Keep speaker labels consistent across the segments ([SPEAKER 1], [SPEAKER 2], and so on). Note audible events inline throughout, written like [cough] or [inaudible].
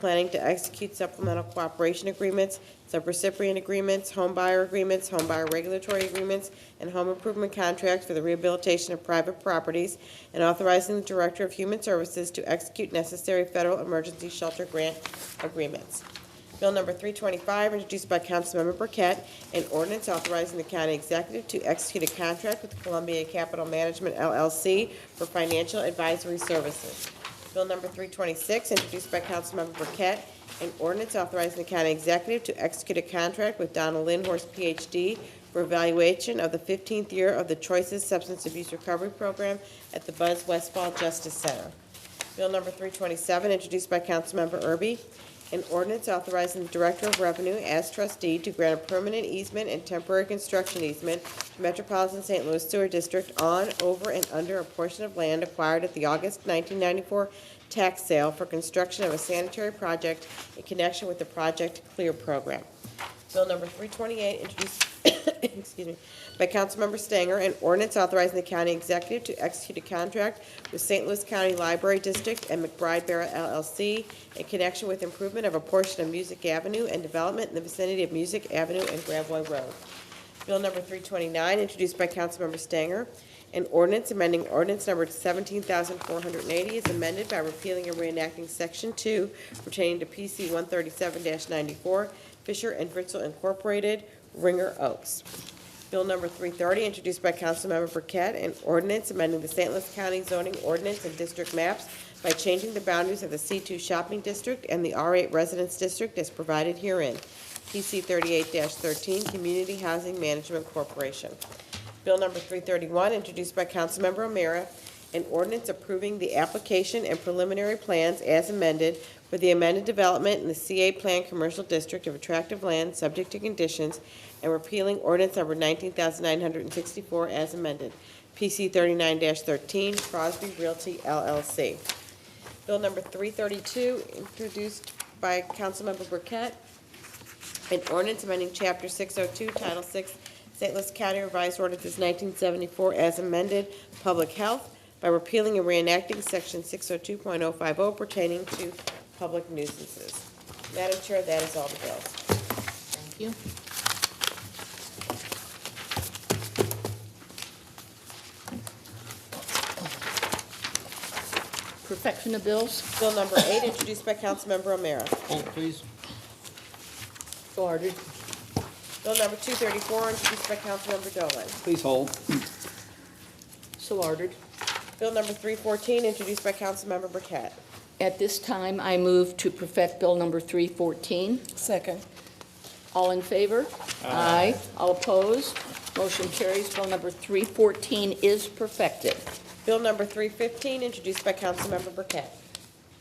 [SPEAKER 1] planning to execute supplemental cooperation agreements, subrecipient agreements, home buyer agreements, home buyer regulatory agreements, and home improvement contracts for the rehabilitation of private properties, and authorizing the Director of Human Services to execute necessary federal emergency shelter grant agreements. Bill number 325, introduced by Councilmember Burkett, an ordinance authorizing the county executive to execute a contract with Columbia Capital Management LLC for financial advisory services. Bill number 326, introduced by Councilmember Burkett, an ordinance authorizing the county executive to execute a contract with Donald Lindhorst, Ph.D., for evaluation of the 15th year of the Choices Substance Abuse Recovery Program at the Buzz Westfall Justice Center. Bill number 327, introduced by Councilmember Erby, an ordinance authorizing the Director of Revenue as trustee to grant a permanent easement and temporary construction easement to Metropolitan St. Louis Sewer District on, over, and under a portion of land acquired at the August 1994 tax sale for construction of a sanitary project in connection with the Project Clear program. Bill number 328, introduced, [coughs] excuse me, by Councilmember Stanger, an ordinance authorizing the county executive to execute a contract with St. Louis County Library District and McBride Barrett LLC in connection with improvement of a portion of Music Avenue and development in the vicinity of Music Avenue and Gravoy Road. Bill number 329, introduced by Councilmember Stanger, an ordinance amending ordinance number 17,480 is amended by repealing and reenacting Section 2 pertaining to PC 137-94, Fisher and Fritzl Incorporated, Ringer Oaks. Bill number 330, introduced by Councilmember Burkett, an ordinance amending the St. Louis County zoning ordinance and district maps by changing the boundaries of the C2 shopping district and the R8 residence district as provided herein. PC 38-13, Community Housing Management Corporation. Bill number 331, introduced by Councilmember O'Meara, an ordinance approving the application and preliminary plans as amended for the amended development in the CA Plan Commercial District of attractive land, subject to conditions, and repealing ordinance number 19,964 as amended. PC 39-13, Crosby Realty LLC. Bill number 332, introduced by Councilmember Burkett, an ordinance amending Chapter 602, Title 6, St. Louis County Revised Ordinances 1974 as amended, Public Health, by repealing and reenacting Section 602.050 pertaining to public nuisances. Madam Chair, that is all the bills.
[SPEAKER 2] Thank you. Perfection of bills,
[SPEAKER 1] Bill number eight, introduced by Councilmember O'Meara.
[SPEAKER 3] Hold, please.
[SPEAKER 2] so ordered.
[SPEAKER 1] Bill number 234, introduced by Councilmember Dolan.
[SPEAKER 3] Please hold.
[SPEAKER 2] So ordered.
[SPEAKER 1] Bill number 314, introduced by Councilmember Burkett.
[SPEAKER 2] At this time, I move to perfect Bill number 314.
[SPEAKER 1] Second.
[SPEAKER 2] All in favor? Aye. All opposed? Motion carries. Bill number 314 is perfected.
[SPEAKER 1] Bill number 315, introduced by Councilmember Burkett.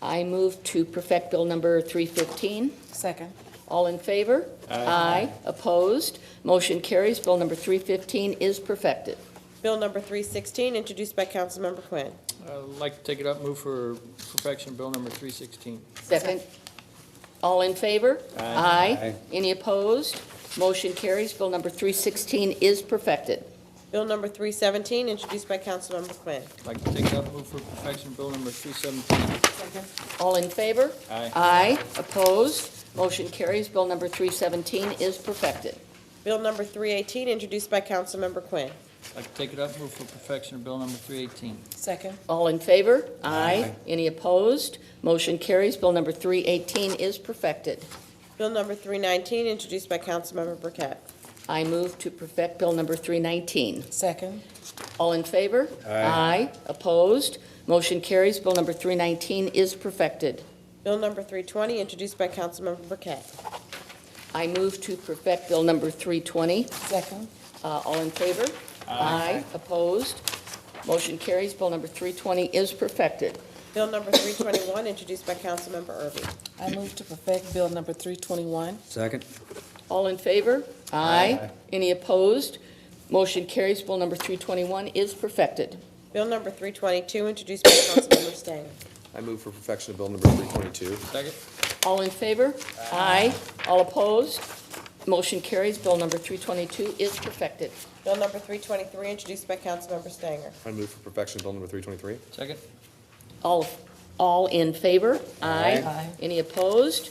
[SPEAKER 2] I move to perfect Bill number 315.
[SPEAKER 1] Second.
[SPEAKER 2] All in favor? Aye. Opposed? Motion carries. Bill number 315 is perfected.
[SPEAKER 1] Bill number 316, introduced by Councilmember Quinn.
[SPEAKER 3] I'd like to take it up, move for perfection, bill number 316.
[SPEAKER 2] Second. All in favor? Aye. Any opposed? Motion carries. Bill number 316 is perfected.
[SPEAKER 1] Bill number 317, introduced by Councilmember Quinn.
[SPEAKER 3] I'd like to take it up, move for perfection, bill number 317.
[SPEAKER 2] All in favor?
[SPEAKER 3] Aye.
[SPEAKER 2] Aye. Opposed? Motion carries. Bill number 317 is perfected.
[SPEAKER 1] Bill number 318, introduced by Councilmember Quinn.
[SPEAKER 3] I'd like to take it up, move for perfection, bill number 318.
[SPEAKER 1] Second.
[SPEAKER 2] All in favor? Aye. Any opposed? Motion carries. Bill number 318 is perfected.
[SPEAKER 1] Bill number 319, introduced by Councilmember Burkett.
[SPEAKER 2] I move to perfect Bill number 319.
[SPEAKER 1] Second.
[SPEAKER 2] All in favor? Aye. Opposed? Motion carries. Bill number 319 is perfected.
[SPEAKER 1] Bill number 320, introduced by Councilmember Burkett.
[SPEAKER 2] I move to perfect Bill number 320.
[SPEAKER 1] Second.
[SPEAKER 2] Uh, All in favor? Aye. Opposed? Motion carries. Bill number 320 is perfected.
[SPEAKER 1] Bill number 321, introduced by Councilmember Erby.
[SPEAKER 4] I move to perfect Bill number 321.
[SPEAKER 5] Second.
[SPEAKER 2] All in favor? Aye. Any opposed? Motion carries. Bill number 321 is perfected.
[SPEAKER 1] Bill number 322, introduced by Councilmember Stanger.
[SPEAKER 5] I move for perfection of bill number 322.
[SPEAKER 3] Second?
[SPEAKER 2] All in favor? Aye. All opposed? Motion carries. Bill number 322 is perfected.
[SPEAKER 1] Bill number 323, introduced by Councilmember Stanger.
[SPEAKER 5] I move for perfection of bill number 323.
[SPEAKER 3] Second?
[SPEAKER 2] All All in favor?
[SPEAKER 4] Aye.
[SPEAKER 2] Any opposed?